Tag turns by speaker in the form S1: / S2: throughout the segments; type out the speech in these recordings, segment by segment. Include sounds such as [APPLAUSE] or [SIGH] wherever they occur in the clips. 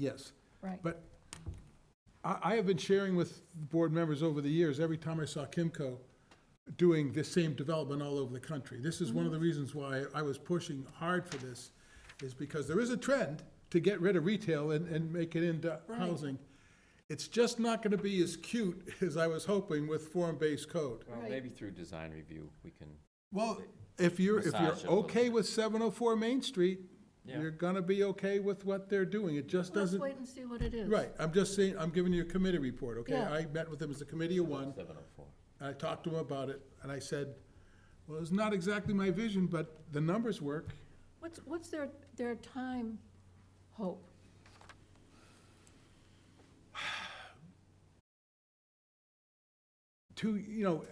S1: Yes.
S2: Right.
S1: But I, I have been sharing with board members over the years, every time I saw Kimco doing this same development all over the country. This is one of the reasons why I was pushing hard for this, is because there is a trend to get rid of retail and, and make it into housing. It's just not gonna be as cute [LAUGHS] as I was hoping with form-based code.
S3: Well,
S2: Right.
S3: maybe through design review, we can,
S1: Well, if you're, if you're
S3: Massage it a little
S1: okay with seven oh four Main Street,
S3: Yeah.
S1: you're gonna be okay with what they're doing. It just
S2: Let's
S1: doesn't
S2: wait and see what it is.
S1: Right, I'm just saying, I'm giving you a committee report, okay?
S2: Yeah.
S1: I met with them as a committee of one,
S3: seven oh four.
S1: and I talked to them about it, and I said, well, it's not exactly my vision, but the numbers work.
S2: What's, what's their, their time hope?
S1: To, you know,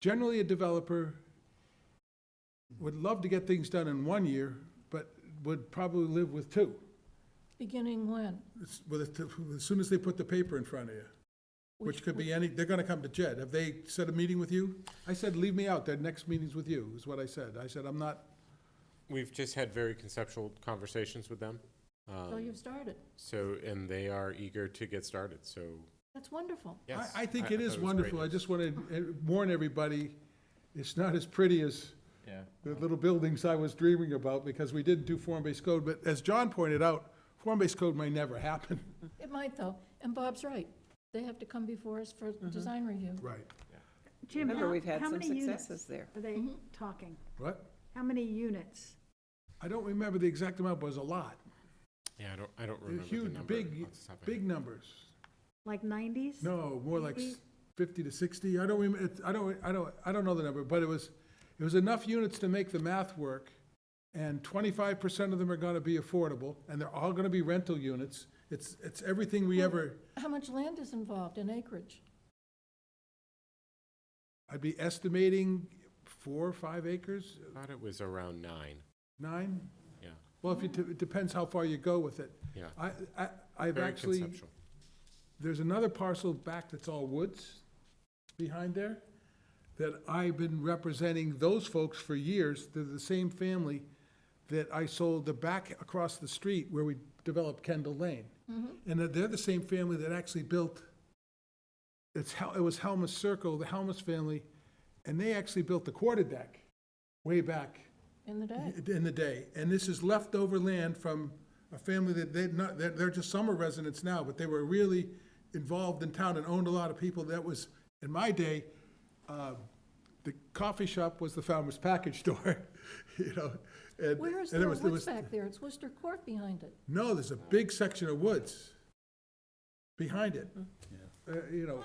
S1: generally, a developer would love to get things done in one year, but would probably live with two,
S2: Beginning when?
S1: It's- with it- as soon as they put the paper in front of you, which could be any, they're gonna come to Jed. Have they set a meeting with you? I said, leave me out, their next meeting's with you, is what I said. I said, I'm not,
S4: We've just had very conceptual conversations with them.
S2: So
S4: um,
S2: you've started.
S4: So, and they are eager to get started, so,
S2: That's wonderful.
S4: yes.
S1: I, I think it is
S4: thought was great
S1: wonderful. I
S4: news.
S1: just want to warn everybody, it's not as pretty as
S3: Yeah.
S1: the little buildings I was dreaming about because we didn't do form-based code. But as John pointed out, form-based code may never
S4: [LAUGHS]
S1: happen.
S2: It might though, and Bob's right. They have to come before us for
S1: Mm-hmm.
S2: design review.
S1: Right.
S5: Jim,
S6: Remember,
S5: how
S6: we've had
S5: how
S6: some
S5: many
S6: successes
S5: units
S6: there.
S5: are they talking?
S1: What?
S5: How many units?
S1: I don't remember the exact amount, but it was a lot.
S4: Yeah, I don't, I don't
S1: They're
S4: remember the
S1: huge,
S4: number.
S1: big-
S4: off the top of my
S1: Big
S4: head.
S1: numbers.
S5: Like 90s?
S1: No, more like s- fifty to sixty. I don't remember, I don't, I don't, I don't know the number, but it was, it was enough units to make the math work. And twenty-five percent of them are gonna be affordable, and they're all gonna be rental units. It's, it's everything we ever.
S2: How much land is involved in acreage?
S1: I'd be estimating four or five acres,
S4: I Thought it was around nine,
S1: nine?
S4: yeah,
S1: Well, if you, it depends how far you go with it.
S4: yeah.
S1: I, I, I've
S4: Very
S1: actually,
S4: conceptual.
S1: there's another parcel back that's all woods behind there that I've been representing those folks for years. They're the same family that I sold the back across the street where we developed Kendall Lane. And that they're the same family that actually built, it's, Hel- it was Helmus Circle, the Helmus family, and they actually built the quarter deck way back
S2: In the day?
S1: in the day, and this is leftover land from a family that they're not, they're, they're just summer residents now, but they were really involved in town and owned a lot of people. That was, in my day, uh, the coffee shop was the farmer's package [LAUGHS] store, you know, [LAUGHS] and.
S2: Where is
S1: and
S2: there
S1: it was- it
S2: woods
S1: was-
S2: back there? It's Worcester Court behind it.
S1: No, there's a big section of woods behind it,
S2: Hmm.
S1: Uh, you know.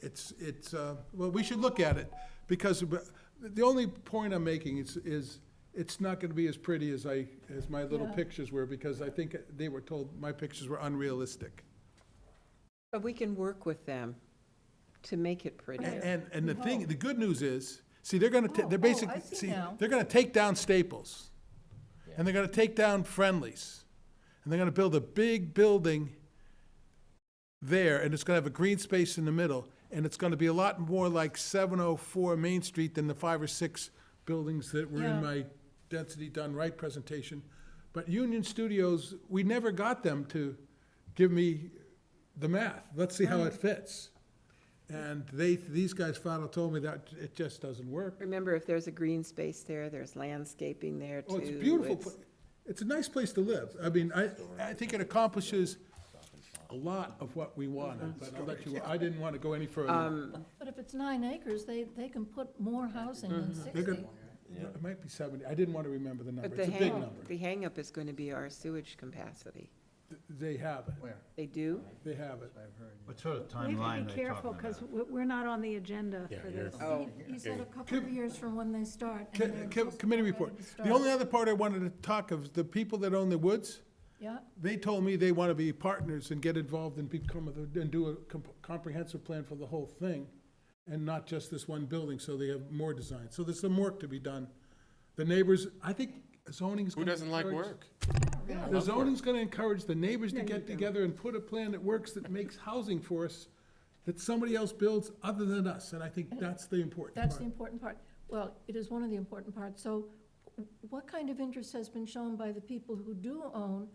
S1: It's, it's, uh, well, we should look at it, because but the only point I'm making is, is it's not gonna be as pretty as I, as my little
S2: Yeah.
S1: pictures were, because I think they were told my pictures were unrealistic.
S6: But we can work with them to make it pretty.
S1: And, and, and the thing, the good news is, see, they're gonna, ta-
S2: Oh,
S1: they're
S2: oh, I
S1: basically,
S2: see
S1: see,
S2: now.
S1: they're gonna take down Staples. And they're gonna take down Friendlies. And they're gonna build a big building there, and it's gonna have a green space in the middle. And it's gonna be a lot more like seven oh four Main Street than the five or six buildings that were
S2: Yeah.
S1: in my density done right presentation. But Union Studios, we never got them to give me the math. Let's see how it fits. And they, these guys final told me that it just doesn't work.
S6: Remember, if there's a green space there, there's landscaping there too.
S1: Oh, it's a beautiful,
S6: it's-
S1: pla- it's a nice place to live. I mean, I, I think it accomplishes a lot of what we wanted, but I'll let you, I didn't want to go any further.
S2: But if it's nine acres, they, they can put more housing than
S1: They're
S2: sixty.
S1: gonna- It might be seventy, I didn't want to remember the number.
S6: But the
S1: It's a big
S6: hang,
S1: number.
S6: the hangup is going to be our sewage capacity.
S1: They have it,
S6: They do?
S1: they have it.
S7: What sort of
S5: We have
S7: timeline
S5: to
S7: are
S5: be
S7: they
S5: careful,
S7: talking
S5: because
S7: about?
S5: we're not on the agenda
S4: Yeah,
S5: for
S4: you're-
S5: this.
S6: Oh,
S2: He said a couple of years from when they start. and
S1: Co-
S2: they're
S1: co-
S2: just
S1: Committee
S2: ready
S1: report.
S2: to start.
S1: The only other part I wanted to talk of, the people that own the woods,
S2: Yeah,
S1: they told me they want to be partners and get involved and become, a- and do a comp- comprehensive plan for the whole thing, and not just this one building, so they have more design. So there's some work to be done. The neighbors, I think zoning's
S4: Who
S1: gonna
S4: doesn't like
S1: encourage-
S4: work?
S1: The zoning's gonna encourage the neighbors to get together and put a plan that works, that makes housing for us, that somebody else builds other than us, and I think that's the important part.
S2: that's the important part. Well, it is one of the important parts. So w- what kind of interest has been shown by the people who do own